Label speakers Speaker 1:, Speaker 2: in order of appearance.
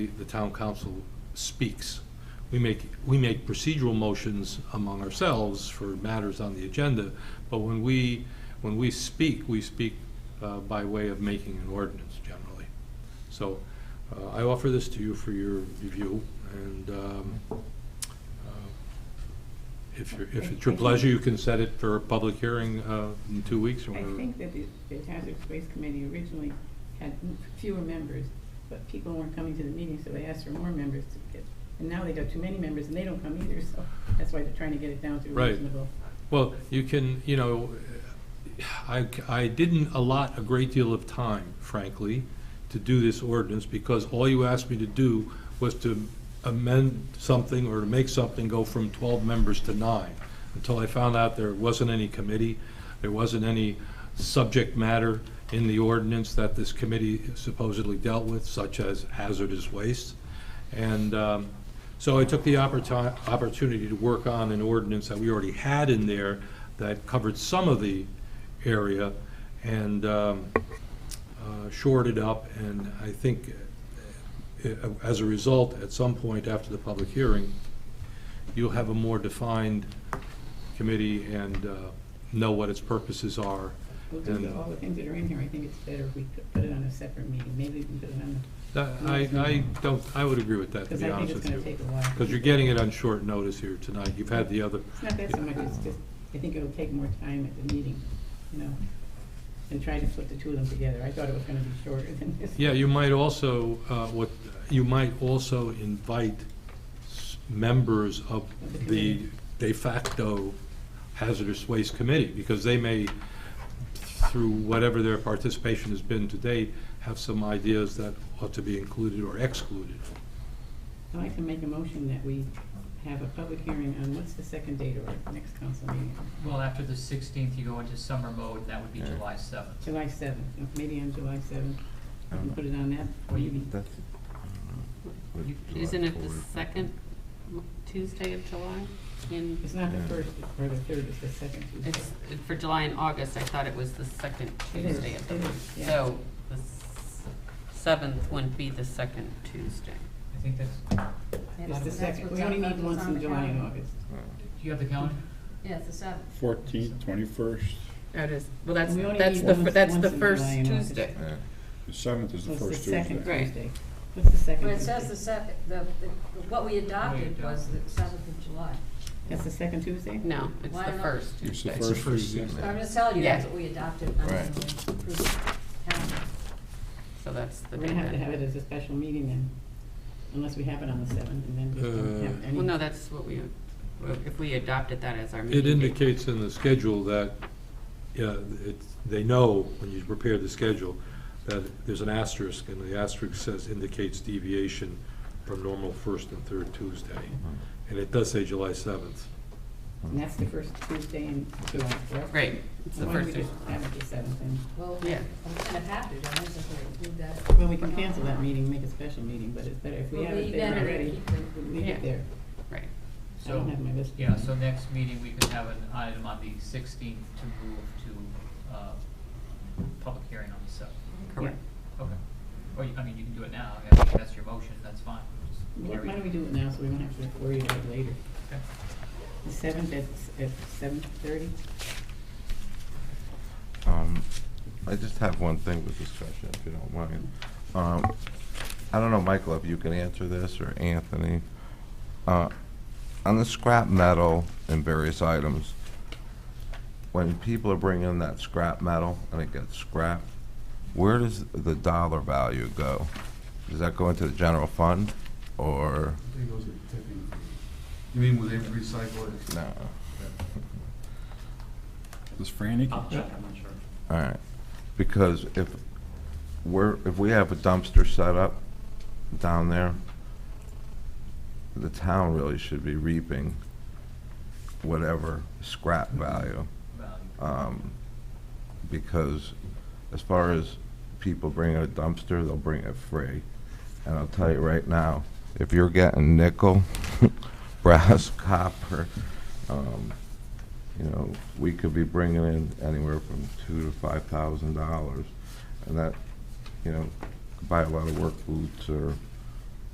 Speaker 1: the town council speaks. We make, we make procedural motions among ourselves for matters on the agenda, but when we, when we speak, we speak uh, by way of making an ordinance generally. So uh, I offer this to you for your review, and um, uh, if you're, if it's your pleasure, you can set it for a public hearing uh, in two weeks or
Speaker 2: I
Speaker 1: whatever.
Speaker 2: think that the, the Hazardous Waste Committee originally had m- fewer members, but people weren't coming to the meeting, so they asked for more members to get. And now they got too many members and they don't come either, so that's why they're trying to get it down to a
Speaker 1: Right.
Speaker 2: reasonable.
Speaker 1: Well, you can, you know, I, I didn't allot a great deal of time, frankly, to do this ordinance, because all you asked me to do was to amend something or to make something go from twelve members to nine, until I found out there wasn't any committee, there wasn't any subject matter in the ordinance that this committee supposedly dealt with, such as hazardous waste. And um, so I took the opportu- opportunity to work on an ordinance that we already had in there that covered some of the area and um, uh, shored it up. And I think, uh, as a result, at some point after the public hearing, you'll have a more defined committee and uh, know what its purposes are.
Speaker 2: We'll
Speaker 1: And,
Speaker 2: do
Speaker 1: uh,
Speaker 2: all the things that are in here, I think it's better if we could put it on a separate meeting, maybe we can put it on
Speaker 1: I, I don't, I would agree with
Speaker 2: the,
Speaker 1: that, to
Speaker 2: because
Speaker 1: be
Speaker 2: I think
Speaker 1: honest with
Speaker 2: it's gonna
Speaker 1: you.
Speaker 2: take a while.
Speaker 1: Because you're getting it on short notice here tonight. You've had the other,
Speaker 2: It's not that so much, it's just, I think it'll take more time at the meeting, you know, and try to put the two of them together. I thought it was gonna be shorter than this.
Speaker 1: Yeah, you might also, uh, what, you might also invite s- members of
Speaker 2: Of the
Speaker 1: the
Speaker 2: committee.
Speaker 1: de facto hazardous waste committee, because they may, through whatever their participation has been to date, have some ideas that ought to be included or excluded.
Speaker 2: I'd like to make a motion that we have a public hearing on, what's the second date of our next council meeting?
Speaker 3: Well, after the sixteenth, you go into summer mode, that would be July seventh.
Speaker 2: July seventh, maybe on July seventh,
Speaker 4: I don't
Speaker 2: and put it on that, or you mean,
Speaker 4: That's,
Speaker 5: You- Isn't it the second m- Tuesday of July? In,
Speaker 2: it's not the
Speaker 4: Yeah.
Speaker 2: first or the third, it's the second Tuesday.
Speaker 5: it's, for July and August, I thought it was the second
Speaker 2: It is,
Speaker 5: Tuesday of the
Speaker 2: it
Speaker 5: month.
Speaker 2: is, yeah.
Speaker 5: So the s- seventh wouldn't be the second Tuesday.
Speaker 3: I think that's,
Speaker 2: It's the second, we only need once in July and August.
Speaker 4: Uh,
Speaker 3: do you have the calendar?
Speaker 6: Yeah, it's the seventh.
Speaker 7: Fourteenth, twenty-first,
Speaker 5: That is, well, that's,
Speaker 2: We only
Speaker 5: that's
Speaker 2: need
Speaker 5: the,
Speaker 2: one-
Speaker 5: fir- that's
Speaker 2: once
Speaker 5: the
Speaker 2: in
Speaker 5: first
Speaker 2: July and August.
Speaker 5: Tuesday.
Speaker 7: the seventh is
Speaker 2: So
Speaker 7: the
Speaker 2: it's the
Speaker 7: first
Speaker 2: second
Speaker 7: Tuesday.
Speaker 5: Right.
Speaker 2: Tuesday. What's the second
Speaker 6: But it
Speaker 2: Tuesday?
Speaker 6: says the seventh, the, the- what we adopted was the seventh of July.
Speaker 2: That's the second Tuesday?
Speaker 5: No, it's
Speaker 6: Why
Speaker 5: the
Speaker 6: not?
Speaker 5: first
Speaker 7: It's the
Speaker 5: Tuesday.
Speaker 7: first Tuesday.
Speaker 6: So I'm just telling you, that's
Speaker 5: Yeah.
Speaker 6: what we adopted on the
Speaker 4: Right.
Speaker 6: approved calendar.
Speaker 5: So that's the
Speaker 2: We're
Speaker 5: day
Speaker 2: gonna have to
Speaker 5: then.
Speaker 2: have it as a special meeting then, unless we have it on the seventh, and then we don't have
Speaker 1: Uh,
Speaker 2: any.
Speaker 5: Well, no, that's what we, if we adopted that as our meeting
Speaker 1: It
Speaker 5: date.
Speaker 1: indicates in the schedule that, yeah, it's, they know when you prepare the schedule, that there's an asterisk, and the asterisk says indicates deviation from normal first and third Tuesday. And it does say July seventh.
Speaker 2: And that's the first Tuesday in July, correct?
Speaker 5: Right, it's the
Speaker 2: Why don't
Speaker 5: first
Speaker 2: we
Speaker 5: Tuesday.
Speaker 2: just have it the seventh, and,
Speaker 6: Well,
Speaker 5: Yeah.
Speaker 6: I'm kind of happy, I was just gonna do that.
Speaker 2: well, we can cancel that meeting, make a special meeting, but it's better if we
Speaker 6: Well,
Speaker 2: have it
Speaker 6: we
Speaker 2: there
Speaker 6: better
Speaker 2: already,
Speaker 6: keep it.
Speaker 2: we leave it
Speaker 5: Yeah.
Speaker 2: there.
Speaker 5: Right.
Speaker 2: I don't
Speaker 3: So,
Speaker 2: have my list.
Speaker 3: yeah, so next meeting, we could have an item on the sixteenth to move to, uh, public hearing on the seventh.
Speaker 5: Correct.
Speaker 3: Okay. Or, you- I mean, you can do it now, I think that's your motion, that's fine. Just
Speaker 2: Why
Speaker 3: carry
Speaker 2: why
Speaker 3: it.
Speaker 2: don't we do it now, so we don't have to worry about it later?
Speaker 3: Okay.
Speaker 2: The seventh at, at seven thirty?
Speaker 4: Um, I just have one thing with discussion, if you don't mind. Um, I don't know, Michael, if you can answer this, or Anthony. Uh, On the scrap metal and various items, when people are bringing in that scrap metal and it gets scrapped, where does the dollar value go? Does that go into the general fund, or?
Speaker 8: think those are tipping fees. You mean when they recycle it?
Speaker 4: No.
Speaker 7: Does Franny?
Speaker 3: I'll check, I'm not sure.
Speaker 4: All right, because if we're, if we have a dumpster set up down there, the town really should be reaping whatever scrap value.
Speaker 3: Value.
Speaker 4: um, Because as far as people bringing a dumpster, they'll bring it free. And I'll tell you right now, if you're getting nickel, brass, copper, um, you know, we could be bringing in anywhere from two to five thousand dollars. And that, you know, could buy a lot of work boots or